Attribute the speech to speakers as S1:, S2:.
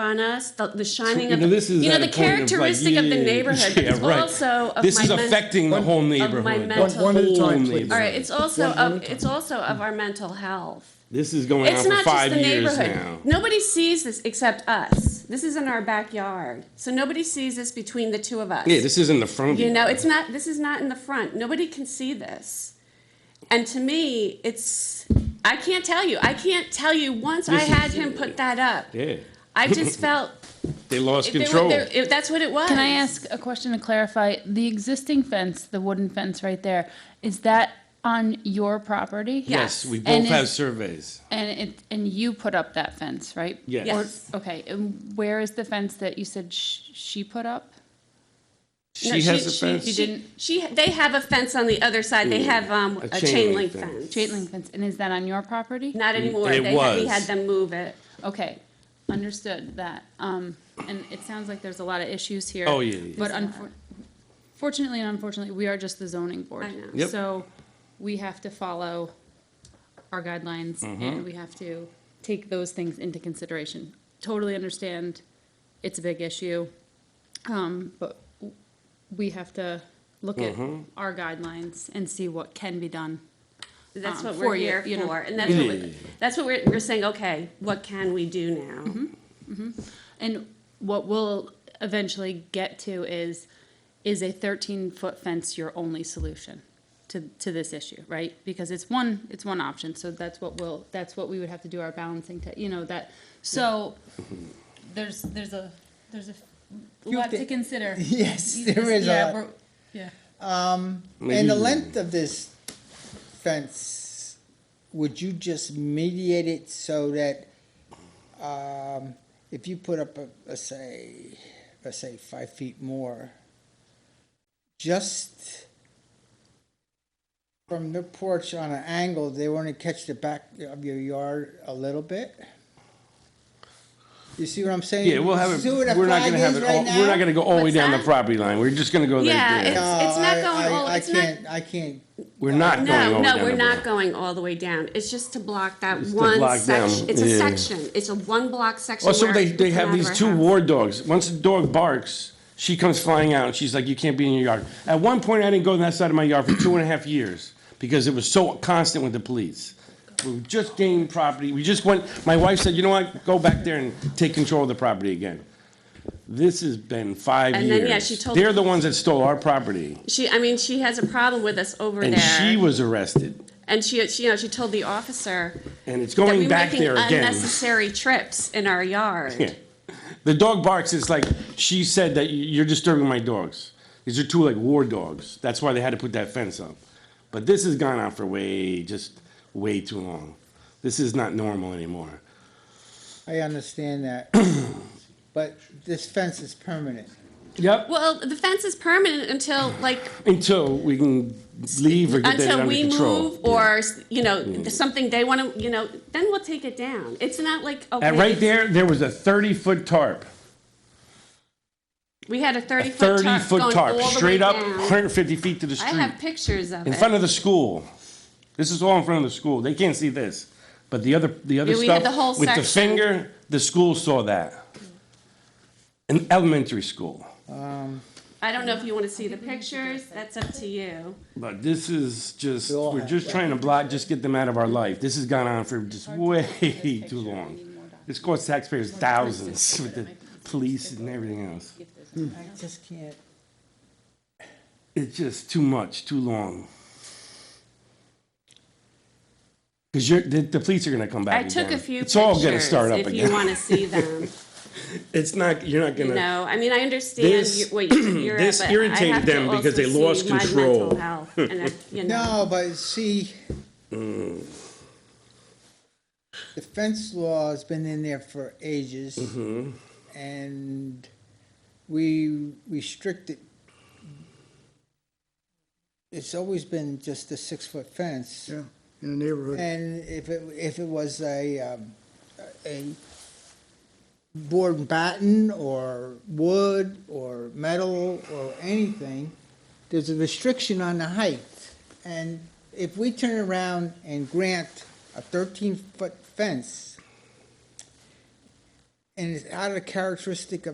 S1: on us, the, the shining
S2: You
S1: of
S2: know,
S1: the,
S2: this is
S1: you know
S2: at
S1: the
S2: a point of, like,
S1: characteristic of, the
S2: yeah,
S1: neighborhood.
S2: yeah,
S1: it's
S2: right.
S1: also of
S2: this
S1: my
S2: is
S1: men-
S2: affecting the whole neighborhood.
S1: mental-
S2: The
S1: One
S2: whole
S1: at a
S3: time, please.
S2: neighborhood.
S1: All right, it's also
S3: One at a
S1: of
S3: time.
S1: it's also of our mental health.
S2: This is going
S1: It's
S2: on for
S1: not just
S2: five
S1: the
S2: years
S1: neighborhood.
S2: now.
S1: Nobody sees this except us. This is in our backyard, so nobody sees this between the two of us.
S2: Yeah, this isn't the front. of
S1: You know, it's not, this is not in the front. Nobody can see this. And to me, it's, I can't tell you. I can't tell you once I
S2: This is- uh,
S1: had him put that up.
S2: Yeah,
S1: I just felt
S2: they lost
S1: if they
S2: control.
S1: were, there- if that's what it was.
S4: Can I ask a question to clarify? The existing fence, the wooden fence right there, is that on your property?
S1: Yeah.
S2: yes, we
S4: And
S2: both
S4: is-
S2: have surveys.
S4: And it, and you put up that fence, right?
S2: Yes.
S1: Yes.
S4: Or- Okay, and where is the fence that you said sh- she put up?
S1: No,
S2: She has a fence.
S4: she didn't-
S1: She, they have a fence on the other side. They have, um,
S2: A
S1: a
S2: chain
S1: chain link
S2: link fence. Mm,
S1: fence.
S4: Chain link fence, and is that on your property?
S1: Not anymore.
S2: It
S1: They had, we
S2: was.
S1: had them move it.
S4: Okay, understood that. Um, and it sounds like there's a lot of issues here.
S2: Oh, yeah, yeah.
S4: But unfor- fortunately and unfortunately, we are just the zoning board.
S1: I know.
S2: Yep.
S4: So we have to follow our guidelines
S2: Mm-hmm.
S4: and we have to take those things into consideration. Totally understand, it's a big issue. Um, but w- we have to look at
S2: Mm-hmm.
S4: our guidelines and see what can be done.
S1: That's
S4: um,
S1: what
S4: for
S1: we're
S4: you,
S1: here
S4: you know.
S1: for. And that's what, we- that's what we're, we're saying, okay, what can we do
S4: Mm-hmm.
S1: now?
S4: And what we'll eventually get to is, is a thirteen foot fence your only solution to, to this issue, right? Because it's one, it's one option, so that's what we'll, that's what we would have to do our balancing to, you know, that, so there's, there's a, there's a lot
S3: thi-
S4: to consider.
S3: Yes,
S4: You-
S3: there is a
S4: yeah,
S3: lot.
S4: we're- Yeah.
S3: And the length of this fence, would you just mediate it so that, um, if you put up a, let's say, let's say five feet more, just from the porch on an angle, they want to catch the back of your yard a little bit? You see what I'm saying?
S2: Yeah, we'll have it.
S3: See where the
S2: We're not
S3: flag
S2: gonna have
S3: is
S2: it.
S3: right
S2: All, we're
S3: now?
S2: not gonna go all the way
S1: What's
S2: down the
S1: that?
S2: property line. We're just gonna go
S1: Yeah,
S2: there. there.
S1: it's-
S3: No,
S1: not
S3: I-
S1: going
S3: I-
S1: all-
S3: I
S1: it's not-
S3: can't- I can't
S2: we're not going
S1: No,
S2: all the way
S1: no,
S2: down
S1: we're
S2: the
S1: not
S2: road.
S1: going all the way down. It's just to block that
S2: It's to
S1: one
S2: block down,
S1: section. It's a
S2: yeah.
S1: section. It's a one block section.
S2: Also,
S1: where
S2: they,
S1: it
S2: they
S1: can
S2: have
S1: come out of
S2: these
S1: our
S2: two
S1: house.
S2: war dogs. Once the dog barks, she comes flying out and she's like, You can't be in your yard. At one point, I didn't go on that side of my yard for two and a half years because it was so constant with the police. We just gained property. We just went, my wife said, You know what? Go back there and take control of the property again. This has been five
S1: And
S2: years.
S1: then, yeah, she told-
S2: They're the ones that stole our property.
S1: She, I mean, she has a problem with us over
S2: And
S1: there.
S2: she was arrested.
S1: and she, she, you know, she told the officer
S2: And it's
S1: that
S2: going
S1: we were
S2: back
S1: making
S2: there again.
S1: unnecessary trips in our yard.
S2: Yeah. The dog barks. It's like she said that you- you're disturbing my dogs. These are two like war dogs. That's why they had to put that fence up. But this has gone on for way, just way too long. This is not normal anymore.
S3: I understand that, but this fence is permanent.
S2: Yep.
S1: Well, the fence is permanent until like
S2: Until we can leave or get that
S1: until
S2: under
S1: we
S2: control. Hmm.
S1: move or s- you know something they want to you know then we'll take it down. It's not like okay,
S2: At right there, there was a 30 foot tarp.
S1: we had a
S2: A
S1: thirty
S2: 30
S1: foot tarp,
S2: foot
S1: going all
S2: tarp,
S1: the way
S2: straight up,
S1: down.
S2: 150 feet to the street.
S1: I have pictures of
S2: in
S1: it.
S2: front of the school. This is all in front of the school. They can't see this, but the other the other
S1: Yeah, we
S2: stuff
S1: had the whole
S2: with the
S1: section.
S2: finger, the school saw that. An elementary school,
S1: I don't know if you want to see the pictures. That's up to you.
S2: but this is just
S3: We all
S2: we're
S3: have-
S2: just trying to block, just get them out of our life. This has gone on for just way too long. This costs taxpayers thousands with the police and everything else.
S3: I just can't.
S2: It's just too much, too long. Because you're the, the police are going to come back.
S1: I took a
S2: again.
S1: few
S2: It's
S1: pictures.
S2: all going to start up
S1: if
S2: again.
S1: you want to see them.
S2: It's not, you're not
S1: you
S2: gonna.
S1: know, I mean, I understand
S2: This-
S1: you- what you're at,
S2: this
S1: but
S2: irritated
S1: I have
S2: them
S1: to
S2: because they
S1: also
S2: lost
S1: see my
S2: control.
S1: mental health and I- you know.
S3: No, but see, the fence law has been in there for ages,
S5: Mm-hmm.
S3: and we restricted. It's always been just a six foot fence.
S5: Yeah, in the neighborhood.
S3: And if it, if it was a, um, a board and batten or wood or metal or anything, there's a restriction on the height. And if we turn around and grant a thirteen-foot fence, and it's out of the characteristic of